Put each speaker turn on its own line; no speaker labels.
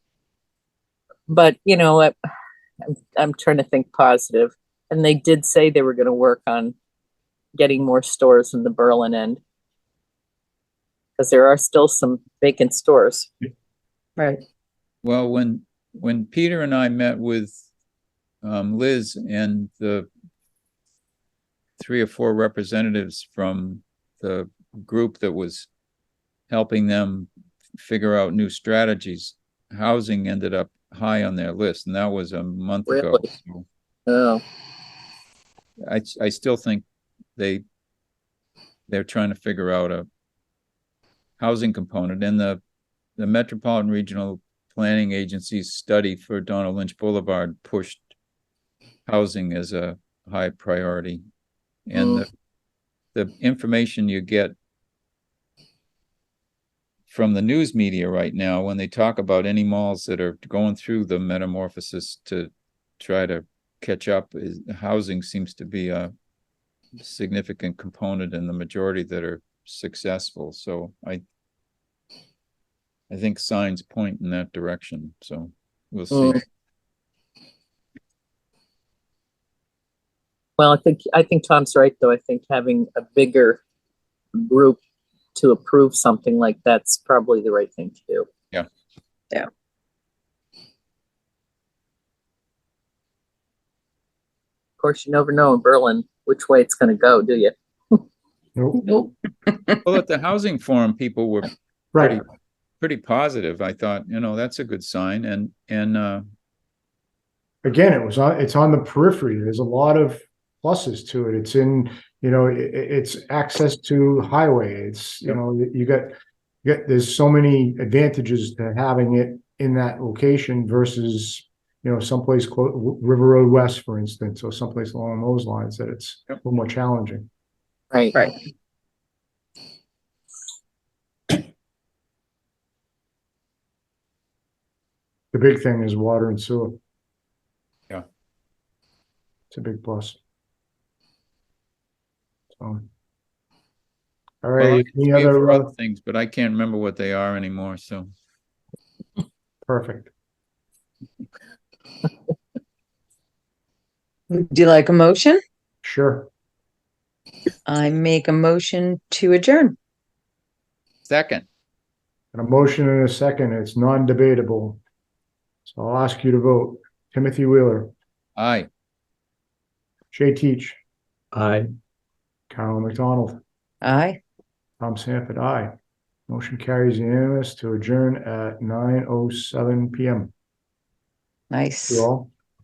but you know, I- I'm, I'm trying to think positive. And they did say they were going to work on getting more stores in the Berlin end. Because there are still some vacant stores.
Right.
Well, when, when Peter and I met with um, Liz and the three or four representatives from the group that was helping them figure out new strategies, housing ended up high on their list, and that was a month ago.
Really?
So
Oh,
I, I still think they, they're trying to figure out a housing component and the, the Metropolitan Regional Planning Agency's study for Donald Lynch Boulevard pushed housing as a high priority. And the, the information you get from the news media right now, when they talk about any malls that are going through the metamorphosis to try to catch up is housing seems to be a significant component in the majority that are successful, so I I think signs point in that direction, so we'll see.
Mm. well, I think, I think Tom's right, though. I think having a bigger group to approve something like that's probably the right thing to do. Of course, you never know in Berlin which way it's going to go, do you?
Nope.
Nope.
Well, at the housing forum, people were
Right.
pretty, pretty positive. I thought, you know, that's a good sign and, and, uh,
Again, it was on, it's on the periphery. There's a lot of pluses to it. It's in, you know, i- i it's access to highway. It's, you know, you you got, you got, there's so many advantages to having it in that location versus, you know, someplace clo- River Road West, for instance, or someplace along those lines that it's a
Yep.
little more challenging.
Right.
Right.
The big thing is water and sewer.
Yeah.
It's a big plus. So. All right, any
we have
other, uh,
other things, but I can't remember what they are anymore, so.
perfect.
Do you like a motion?
Sure.
I make a motion to adjourn.
Second,
And a motion and a second, it's non-debatable. So I'll ask you to vote. Timothy Wheeler,
aye.
Jay Teach,
Aye.
Carolyn McDonald,
Aye.
Tom Sanford, aye. Motion carries unanimous to adjourn at nine oh seven PM.
Nice.
You all?